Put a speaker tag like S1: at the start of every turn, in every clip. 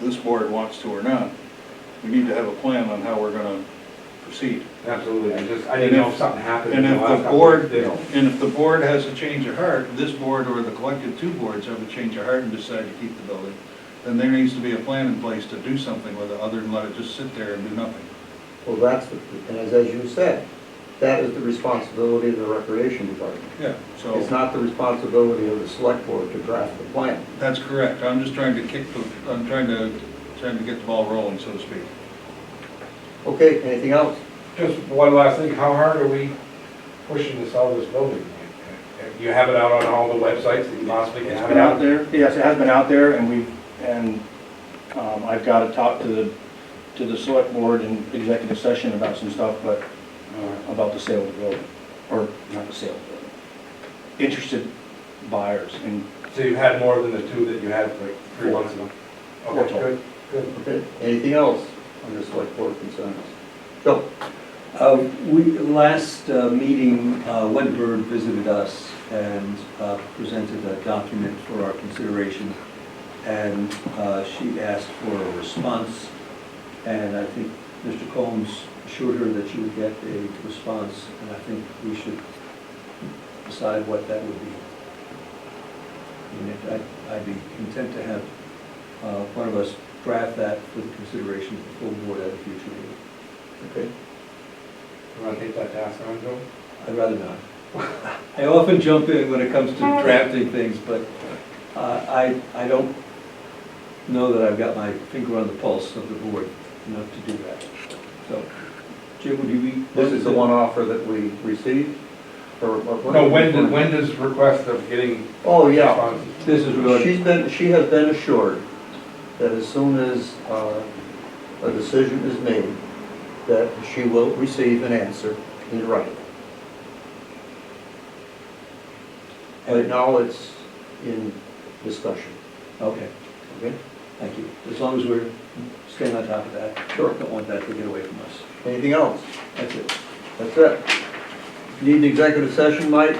S1: this board wants to or not, we need to have a plan on how we're gonna proceed.
S2: Absolutely, I just, I didn't know if something happened.
S1: And
S2: in
S1: if
S2: last
S1: the
S2: couple
S1: board,
S2: days.
S1: and if the board has a change of heart, this board or the collective two boards have a change of heart and decide to keep the building, then there needs to be a plan in place to do something with it, other than let it just sit there and do nothing.
S3: Well, that's, the- and as, as you said, that is the responsibility of the recreation department.
S1: Yeah.
S3: It's
S1: So,
S3: not the responsibility of the select board to draft the plan.
S1: that's correct, I'm just trying to kick the, I'm trying to, trying to get the ball rolling, so to speak.
S3: Okay, anything else?
S2: Just one last thing, how hard are we pushing to sell this building? You have it out on all the websites that you possibly can
S4: It's
S2: have it
S4: been out
S2: out there?
S4: there, yes, it has been out there, and we've, and um, I've got to talk to the, to the select board in executive session about some stuff, but uh, about the sale of the building, or not the sale of the building, interested buyers, and
S2: So you've had more than the two that you had like three months ago?
S4: Four
S2: Okay,
S4: total.
S2: good, good.
S3: Okay, anything else under select board concerns? Phil?
S5: Uh, We, last uh, meeting, uh, Wedbird visited us and uh, presented a document for our consideration. And uh, she asked for a response, and I think Mr. Combs assured her that she would get a response. And I think we should decide what that would be. I mean, I'd- I'd be content to have uh, one of us draft that for the consideration of the full board at a future meeting.
S3: Okay,
S2: You want to take that task on, Joe?
S5: I'd rather not. I often jump in when it comes to drafting things, but uh, I, I don't know that I've got my finger on the pulse of the board enough to do that. So, Jim, would you be?
S3: this is the one offer that we received, or or what?
S2: No, when did, when does request of getting
S3: Oh, yeah.
S2: responses?
S5: This is really,
S3: She's been, she has been assured that as soon as uh, a decision is made, that she will receive an answer in writing. Right now, it's in discussion,
S5: okay,
S3: okay?
S5: thank you. As long as we're staying on top of that.
S3: Sure.
S5: Don't want that to get away from us.
S3: Anything else?
S5: That's it.
S3: That's it. Need an executive session, Mike?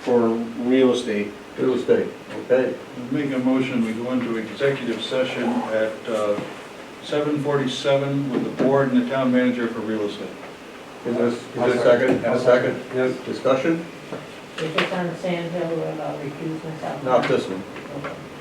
S4: for real estate.
S3: Real estate, okay?
S1: Make a motion, we go into executive session at uh, 7:47 with the board and the town manager for real estate.
S3: Is this, is
S2: I'll
S3: there a second,
S2: I'll
S3: a second
S2: Yes.
S3: discussion?
S6: If it's on Sand Hill Road, I'll uh, recuse myself.
S3: Not this one.
S6: Okay.